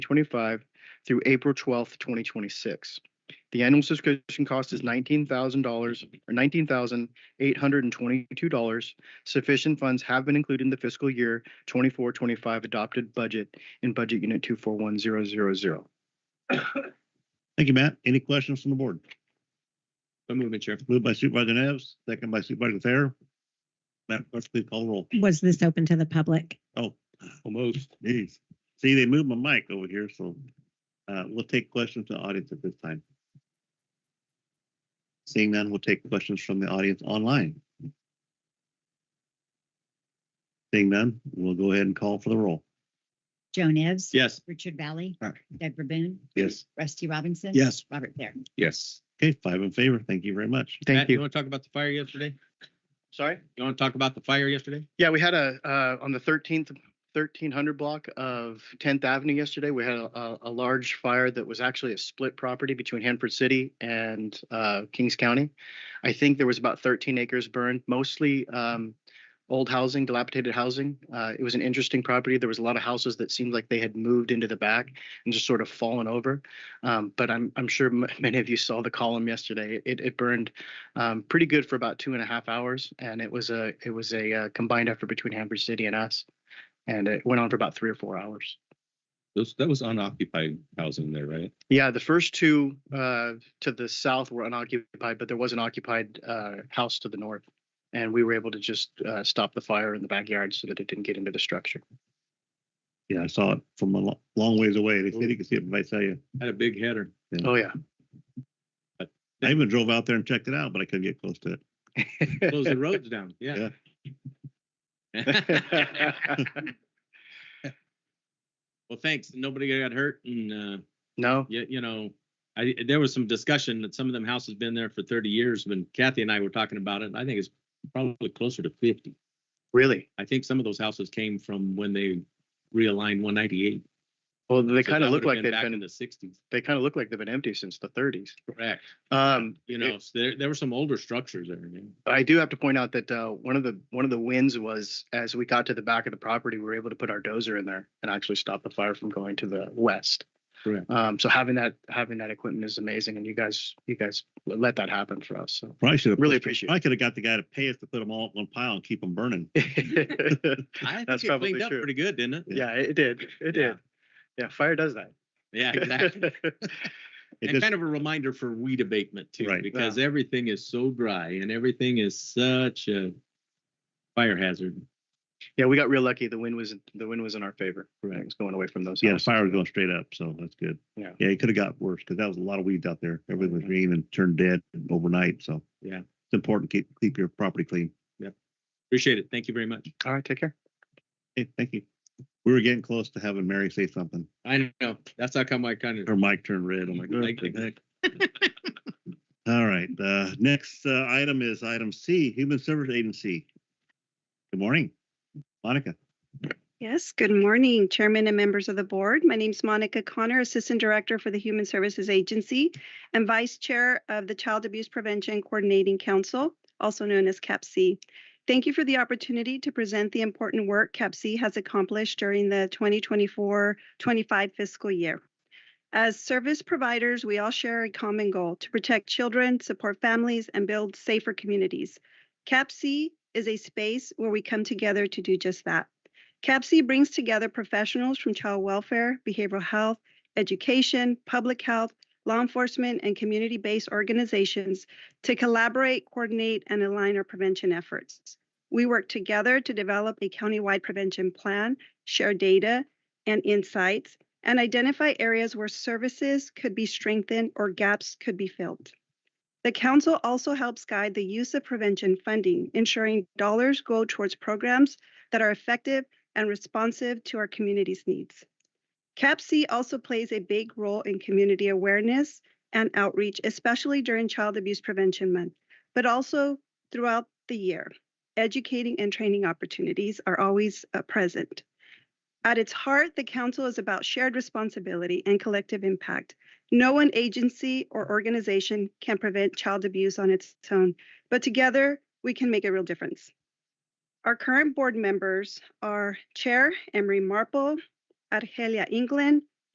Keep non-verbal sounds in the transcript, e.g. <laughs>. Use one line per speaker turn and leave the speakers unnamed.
twenty-five through April twelfth, twenty twenty-six. The annual subscription cost is nineteen thousand dollars or nineteen thousand eight hundred and twenty-two dollars. Sufficient funds have been included in the fiscal year twenty-four, twenty-five adopted budget in budget unit two four one zero zero zero.
Thank you, Matt. Any questions from the board?
So move, Mr. Chair.
Moved by Supervisor Neves, second by Supervisor Thayer. Matt, let's please call roll.
Was this open to the public?
Oh,
Almost.
geez. See, they moved my mic over here, so uh, we'll take questions from the audience at this time. Seeing none, we'll take questions from the audience online. Seeing none, we'll go ahead and call for the roll.
Joe Nevs.
Yes.
Richard Valley.
Aye.
Deborah Boone.
Uh, Yes.
Rusty Robinson.
Yes.
Robert Fair.
Yes.
Okay, five in favor. Thank you very much.
Thank you.
want to talk about the fire yesterday?
Sorry?
You want to talk about the fire yesterday?
Yeah, we had a, uh, on the thirteenth, thirteen hundred block of Tenth Avenue yesterday, we had a, a- a large fire that was actually a split property between Hanford City and, uh, Kings County. I think there was about thirteen acres burned, mostly, um, old housing, dilapidated housing. Uh, it was an interesting property. There was a lot of houses that seemed like they had moved into the back and just sort of fallen over. Um, but I'm, I'm sure m- <laughs> many of you saw the column yesterday. It, it burned um, pretty good for about two and a half hours, and it was a it was a uh, combined effort between Hamburg City and us, and it went on for about three or four hours.
Those, that was unoccupied housing there, right?
Yeah, the first two uh, to the south were unoccupied, but there was an occupied uh, house to the north, and we were able to just uh, stop the fire in the backyard so that it didn't get into the structure.
Yeah, I saw it from a lo- long ways away. They said you could see it, but I tell you,
Had a big header.
Oh
<laughs>
yeah,
I even drove out there and checked it out, but I couldn't get close to it.
Closed the
<laughs>
roads down, yeah. Well, thanks. Nobody got hurt and, uh,
no,
you, you know, I, there was some discussion that some of them houses been there for thirty years when Kathy and I were talking about it. and I think it's probably closer to fifty.
really.
I think some of those houses came from when they realigned one ninety-eight.
Well, they kind of look like they've
Back in
been
the sixties.
they kind of look like they've been empty since the 30s.
Correct.
Um,
You know, so there, there were some older structures there. yeah.
<laughs> I do have to point out that uh, one of the one of the wins was as we got to the back of the property, we were able to put our dozer in there and actually stop the fire from going to the west.
Correct.
Um, so having that having that equipment is amazing, and you guys you guys let that happen for us. So
Probably should have.
really appreciate
I could have got the guy to pay us to put them all in one pile and keep
<laughs>
them burning.
it.
I
That's
think it
probably
cleaned up
true.
pretty good, didn't it?
yeah, it did. It
Yeah.
did. Yeah, fire does that.
Yeah, exactly.
It
And
just,
kind of a reminder for weed abatement too,
Right.
because everything is so dry and everything is such a fire hazard.
<laughs> yeah, we got real lucky. The wind was the wind was in our favor. It was going away from those.
yeah, the
houses.
fire was going straight up, so that's good.
Yeah.
Yeah, it could have got worse because that was a lot of weeds out there. Everything was green and turned dead overnight, so.
Yeah.
It's important to keep, keep your property clean.
Appreciate it. Thank you very much.
All right, take care.
Hey, thank you. We were getting close to having Mary say something.
I know. That's how come I kind of.
Her mic turned red. I'm like,
Like,
"What the
like,
heck?" <laughs> All right, uh, next, uh, item is item C, Human Service Agency. Good morning, Monica.
Yes, good morning, Chairman and members of the board. My name's Monica Connor, Assistant Director for the Human Services Agency and Vice Chair of the Child Abuse Prevention Coordinating Council, also known as CAPC. Thank you for the opportunity to present the important work CAPC has accomplished during the 2024-25 fiscal year. As service providers, we all share a common goal to protect children, support families, and build safer communities. CAPC is a space where we come together to do just that. CAPC brings together professionals from child welfare, behavioral health, education, public health, law enforcement, and community based organizations to collaborate, coordinate, and align our prevention efforts. We work together to develop a countywide prevention plan, share data and insights, and identify areas where services could be strengthened or gaps could be filled. The council also helps guide the use of prevention funding, ensuring dollars go towards programs that are effective and responsive to our community's needs. CAPC also plays a big role in community awareness and outreach, especially during Child Abuse Prevention Month, but also throughout the year. Educating and training opportunities are always uh, present. At its heart, the Council is about shared responsibility and collective impact. No one agency or organization can prevent child abuse on its own, but together we can make a real difference. Our current board members are Chair Emery Marple, Argelia England,